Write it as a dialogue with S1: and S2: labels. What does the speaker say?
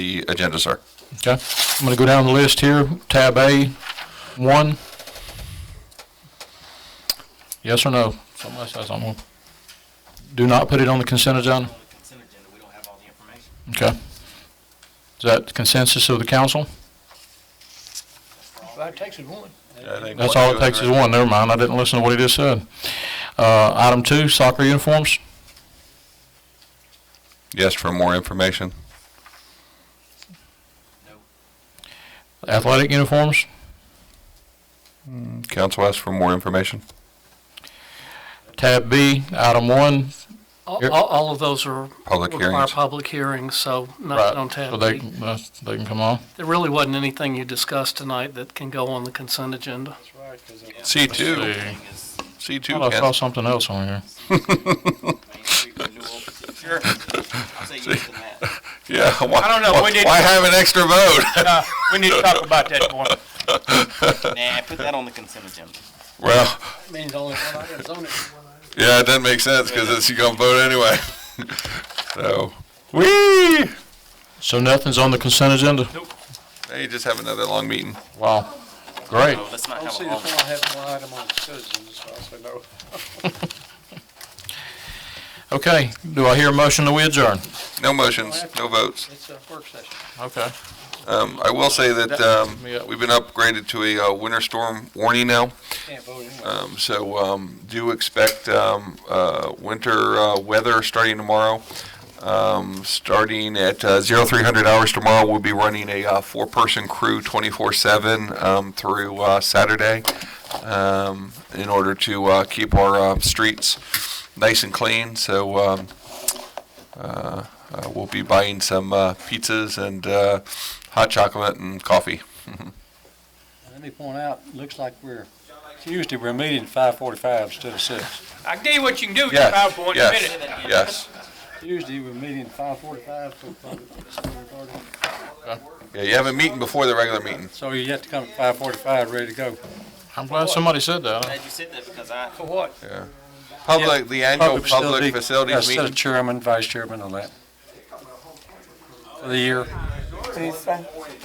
S1: the agenda, sir.
S2: Okay, I'm going to go down the list here, tab A, one. Yes or no? Somebody says I'm on. Do not put it on the consent agenda?
S3: on the consent agenda, we don't have all the information.
S2: Okay. Is that consensus of the council?
S4: That takes us one.
S2: That's all it takes is one, never mind, I didn't listen to what he just said. Uh, item two, soccer uniforms,
S1: Yes, for more information.
S2: athletic uniforms,
S1: Council asks for more information.
S2: tab B, item one.
S4: All,
S2: Here-
S4: all- all of those are.
S1: Public
S4: Require
S1: hearings.
S4: public hearings, so not on
S2: Right,
S4: tab
S2: so they,
S4: B.
S2: can- uh, they can come on.
S4: There really wasn't anything you discussed tonight that can go on the consent agenda.
S1: C2,
S2: See. Thought
S1: C2,
S2: I saw
S1: council.
S2: something else on here.
S3: Main Street renewal. Sure. I'll say yes to that.
S1: Yeah.
S5: I don't know, we need-
S1: Why have an extra vote?
S5: Uh, We need to talk about that more.
S3: Nah, put that on the consent agenda.
S1: Well,
S4: Means only one item's on it.
S1: yeah, it doesn't make sense because it's, you're going to vote anyway. So, whee!
S2: So nothing's on the consent agenda?
S1: Now you just have another long meeting.
S2: Wow, great.
S3: So let's not have all of it.
S4: I have one item on citizens, so I'll say no.
S2: Okay, do I hear a motion to adjourn?
S1: No motions, no votes.
S4: It's a work session.
S2: Okay.
S1: Um, I will say that, um, we've been upgraded to a, uh, winter storm warning now.
S4: Can't vote anyway.
S1: Um, so, um, do expect, um, uh, winter, uh, weather starting tomorrow. Um, starting at, uh, zero, three hundred hours tomorrow, we'll be running a, uh, four-person crew twenty-four seven, um, through, uh, Saturday. Um, in order to, uh, keep our, uh, streets nice and clean, so, um, uh, uh, we'll be buying some, uh, pizzas and, uh, hot chocolate and coffee.
S6: Let me point out, looks like we're, Tuesday, we're meeting five forty-five instead of six.
S5: I can tell you what you can do with your
S1: Yes,
S5: PowerPoint in a
S1: yes,
S5: minute.
S1: yes.
S6: Tuesday, we're meeting five forty-five for public recording.
S1: Yeah, you have a meeting before the regular meeting.
S6: So you have to come at five forty-five, ready to go.
S2: I'm glad somebody said that.
S3: Glad you said that because I,
S4: For what?
S1: Public, the annual
S6: Facility-
S1: public facilities
S6: Yeah, Set
S1: meeting.
S6: of chairman, vice chairman, all that. For the year.